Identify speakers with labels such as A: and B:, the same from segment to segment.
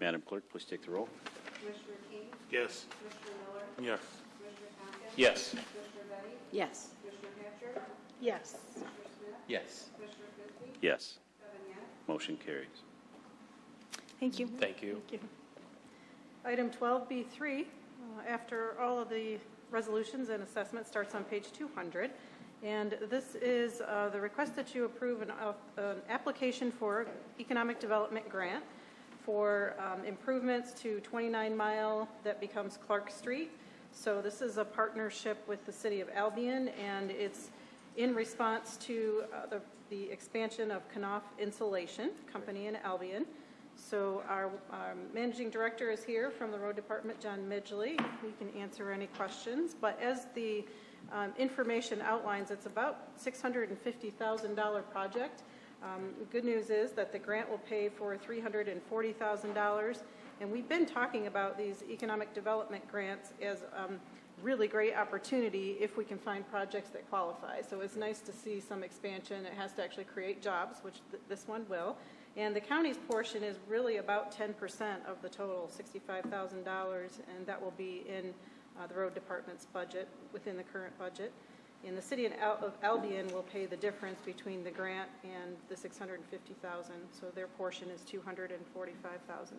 A: Madam Clerk, please take the roll.
B: Commissioner King,
C: Yes.
B: Commissioner Miller,
C: Yes.
B: Commissioner Tompkins,
A: Yes.
B: Commissioner Betty,
D: Yes.
B: Commissioner Hatcher,
D: Yes.
B: Commissioner Smith,
E: Yes.
B: Commissioner Fisbee,
A: Yes.
B: seven yes.
A: Motion carries.
D: Thank you.
E: Thank you.
D: Thank you.
F: Item 12B3, uh, after all of the resolutions and assessment starts on page 200. And this is uh, the request that you approve an op- an application for economic development grant for um, improvements to 29 Mile that becomes Clark Street. So this is a partnership with the city of Albion, and it's in response to uh, the- the expansion of Knopf Insulation Company in Albion. So our um, managing director is here from the road department, John Midgley. He can answer any questions. But as the um, information outlines, it's about $650,000 project. Um, the Good news is that the grant will pay for $340,000. And we've been talking about these economic development grants as um, really great opportunity if we can find projects that qualify. So it's nice to see some expansion. It has to actually create jobs, which th- this one will. And the county's portion is really about 10% of the total, $65,000, and that will be in uh, the road department's budget, within the current budget. And the city of Al- of Albion will pay the difference between the grant and the 650,000, so their portion is $245,000.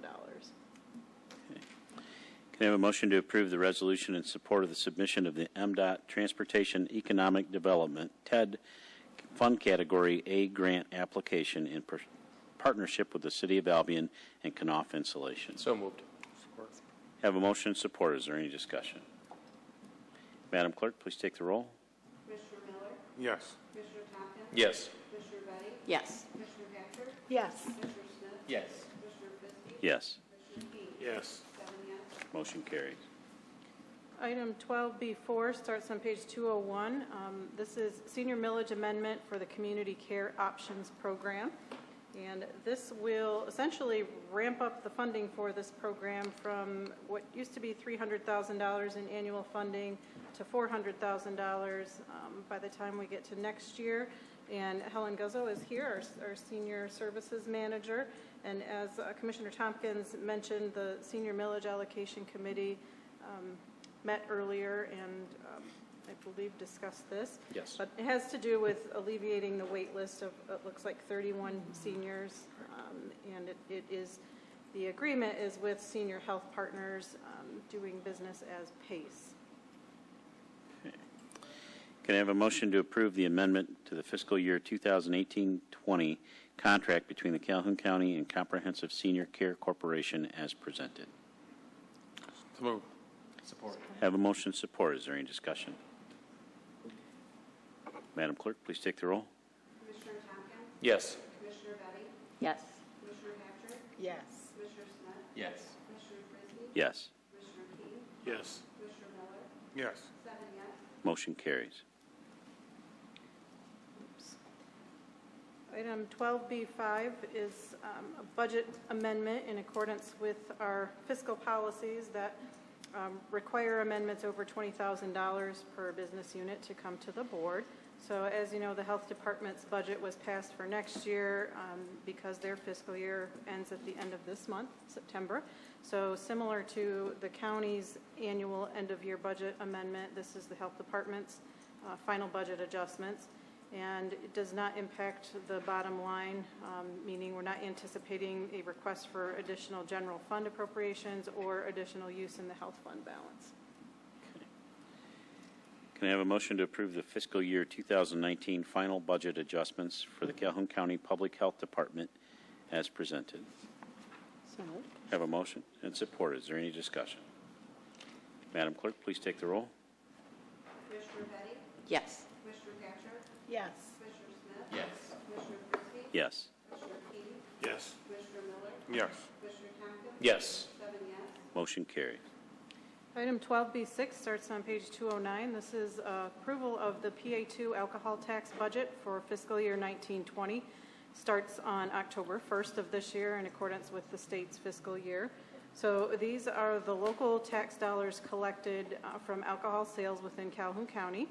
A: Can I have a motion to approve the resolution in support of the submission of the MDOT Transportation Economic Development TED Fund Category A Grant Application in per- partnership with the City of Albion and Knopf Insulation?
E: So moved.
A: Have a motion and support. Is there any discussion? Madam Clerk, please take the roll.
B: Commissioner Miller,
C: Yes.
B: Commissioner Tompkins,
E: Yes.
B: Commissioner Betty,
D: Yes.
B: Commissioner Hatcher,
D: Yes.
B: Commissioner Smith,
E: Yes.
B: Commissioner Fisbee,
A: Yes.
B: Commissioner King,
C: Yes.
B: seven yes.
A: Motion carries.
F: Item 12B4 starts on page 201. Um, This is senior millage amendment for the Community Care Options Program. And this will essentially ramp up the funding for this program from what used to be $300,000 in annual funding to $400,000 um, by the time we get to next year. And Helen Guzzo is here, our, our senior services manager. And as uh, Commissioner Tompkins mentioned, the senior millage allocation committee um, met earlier and um, I believe discussed this.
E: Yes.
F: But it has to do with alleviating the wait list of, it looks like 31 seniors. um, And it- it is, the agreement is with Senior Health Partners um, doing business as PACE.
A: Can I have a motion to approve the amendment to the fiscal year 2018-20 contract between the Calhoun County and Comprehensive Senior Care Corporation as presented?
C: So moved.
E: Support.
A: Have a motion and support. Is there any discussion? Madam Clerk, please take the roll.
B: Commissioner Tompkins,
E: Yes.
B: Commissioner Betty,
D: Yes.
B: Commissioner Hatcher,
D: Yes.
B: Commissioner Smith,
E: Yes.
B: Commissioner Fisbee,
A: Yes.
B: Commissioner King,
C: Yes.
B: Commissioner Miller,
C: Yes.
B: seven yes.
A: Motion carries.
F: Item 12B5 is um, a budget amendment in accordance with our fiscal policies that um, require amendments over $20,000 per business unit to come to the board. So as you know, the Health Department's budget was passed for next year um, because their fiscal year ends at the end of this month, September. So similar to the county's annual end-of-year budget amendment, this is the Health Department's uh, final budget adjustments and it does not impact the bottom line, um, meaning we're not anticipating a request for additional general fund appropriations or additional use in the health fund balance.
A: Can I have a motion to approve the fiscal year 2019 final budget adjustments for the Calhoun County Public Health Department as presented?
D: So moved.
A: Have a motion and support. Is there any discussion? Madam Clerk, please take the roll.
B: Commissioner Betty,
D: Yes.
B: Commissioner Hatcher,
D: Yes.
B: Commissioner Smith,
E: Yes.
B: Commissioner Fisbee,
A: Yes.
B: Commissioner King,
C: Yes.
B: Commissioner Miller,
C: Yes.
B: Commissioner Tompkins,
E: Yes.
B: seven yes.
A: Motion carries.
F: Item 12B6 starts on page 209. This is uh, approval of the PA2 alcohol tax budget for fiscal year 1920. Starts on October 1st of this year in accordance with the state's fiscal year. So these are the local tax dollars collected uh, from alcohol sales within Calhoun County.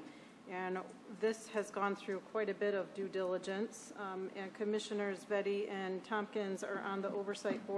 F: And this has gone through quite a bit of due diligence. Um, And Commissioners Betty and Tompkins are on the oversight board